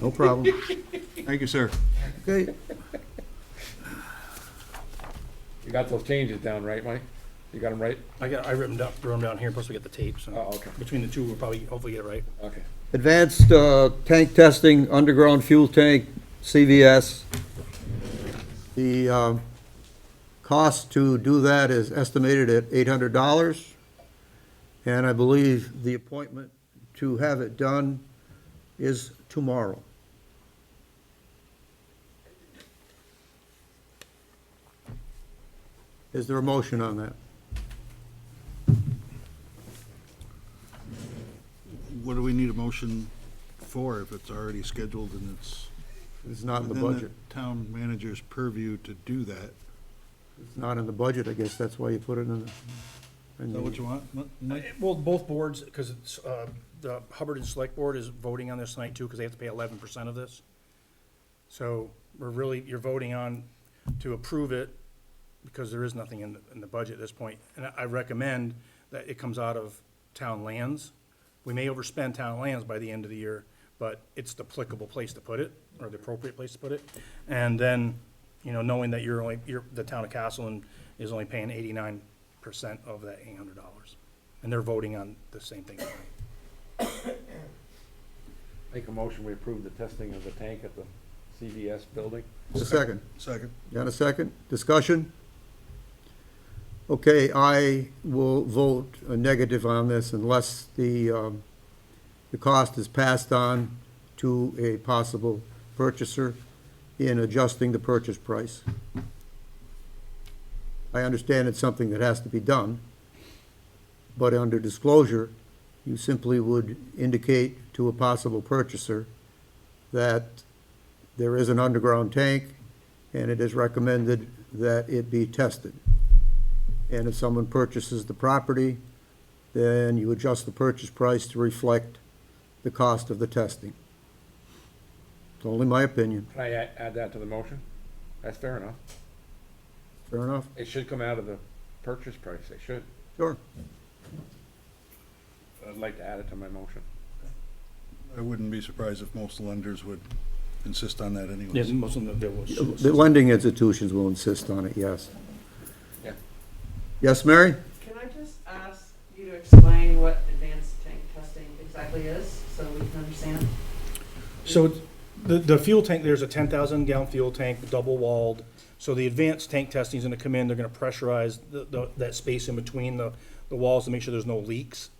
No problem. Thank you, sir. Okay, You got those changes down, right, Mike? You got them right? I got, I wrote them down, wrote them down here, plus we got the tape, Oh, so okay, between the two, we'll probably, hopefully get it right. okay. advanced uh, tank testing, underground fuel tank, CVS. The uh, cost to do that is estimated at $800. And I believe the appointment to have it done is tomorrow. Is there a motion on that? What do we need a motion for if it's already scheduled and it's It's not in the within budget. Town manager's purview to do that. It's not in the budget, I guess that's why you put it in the. in Is that what the- you want, Mi- Mike? Well, both boards, because it's, uh, the Hubbard and Select Board is voting on this tonight too, because they have to pay eleven percent of this. So we're really, you're voting on to approve it, because there is nothing in, the- in the budget at this point. And I- I recommend that it comes out of town lands. We may overspend town lands by the end of the year, but it's the applicable place to put it, or the appropriate place to put it. And then, you know, knowing that you're only, you're, the town of Castleton is only paying eighty-nine percent of that eight hundred dollars. And they're voting on the same thing. Make a motion, we approve the testing of the tank at the CVS building. A second. Second. Got a second? Discussion? Okay, I will vote a negative on this unless the, um, the cost is passed on to a possible purchaser in adjusting the purchase price. I understand it's something that has to be done, but under disclosure, you simply would indicate to a possible purchaser that there is an underground tank, and it is recommended that it be tested. And if someone purchases the property, then you adjust the purchase price to reflect the cost of the testing. It's only my opinion. Can I add, add that to the motion? That's fair enough. Fair enough? It should come out of the purchase price, it should. Sure. I'd like to add it to my motion. I wouldn't be surprised if most lenders would insist on that anyway. most of them, there was. The lending institutions will insist on it, yes. Yeah. Yes, Mary? Can I just ask you to explain what advanced tank testing exactly is, so we can understand? So it's- the, the fuel tank, there's a ten thousand gallon fuel tank, double walled. So the advanced tank testing is gonna come in, they're gonna pressurize the, the, that space in between the, the walls to make sure there's no leaks.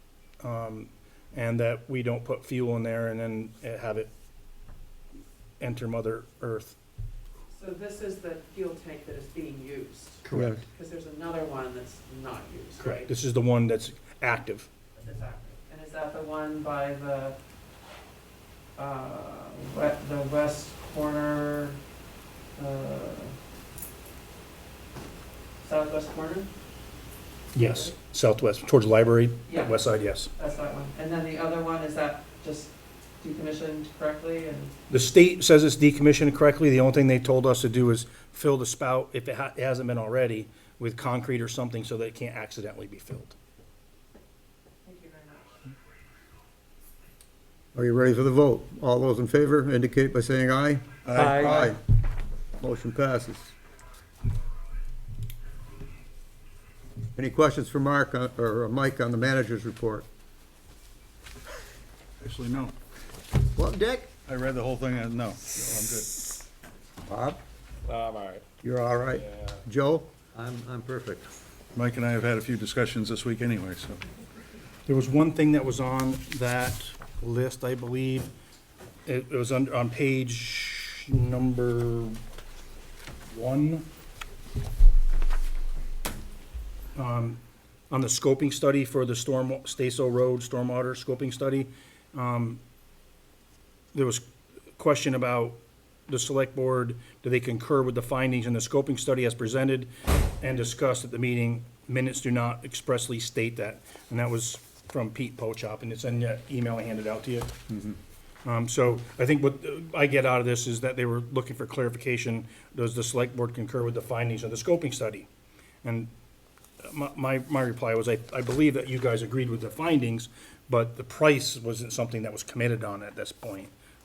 Um, and that we don't put fuel in there and then uh, have it enter mother earth. So this is the fuel tank that is being used, Correct. because there's another one that's not used, right? This is the one that's active. Exactly. And is that the one by the, uh, we- the west corner, uh, southwest corner? Yes, southwest, towards the library, Yeah. west side, yes. That's that one. And then the other one, is that just decommissioned correctly and? The state says it's decommissioned correctly. The only thing they told us to do is fill the spout, if it ha- it hasn't been already, with concrete or something so that it can't accidentally be filled. Thank you very much. Are you ready for the vote? All those in favor indicate by saying aye. Aye. Motion passes. Any questions for Mark on- or uh, Mike on the manager's report? Actually, no. Well, Dick? I read the whole thing and no, no, I'm good. Bob? all right. You're all right? Joe? I'm, I'm perfect. Mike and I have had a few discussions this week anyway, so. There was one thing that was on that list, I believe. It it was on, on page number one. Um, On the scoping study for the storm, Staso Road Stormwater Scoping Study, um, there was question about the select board, do they concur with the findings in the scoping study as presented and discussed at the meeting? Minutes do not expressly state that, and that was from Pete Pochop, and it's in the email I handed out to you. Um, so I think what uh, I get out of this is that they were looking for clarification, does the select board concur with the findings of the scoping study? And my, my, my reply was, I, I believe that you guys agreed with the findings, but the price wasn't something that was committed on at this point.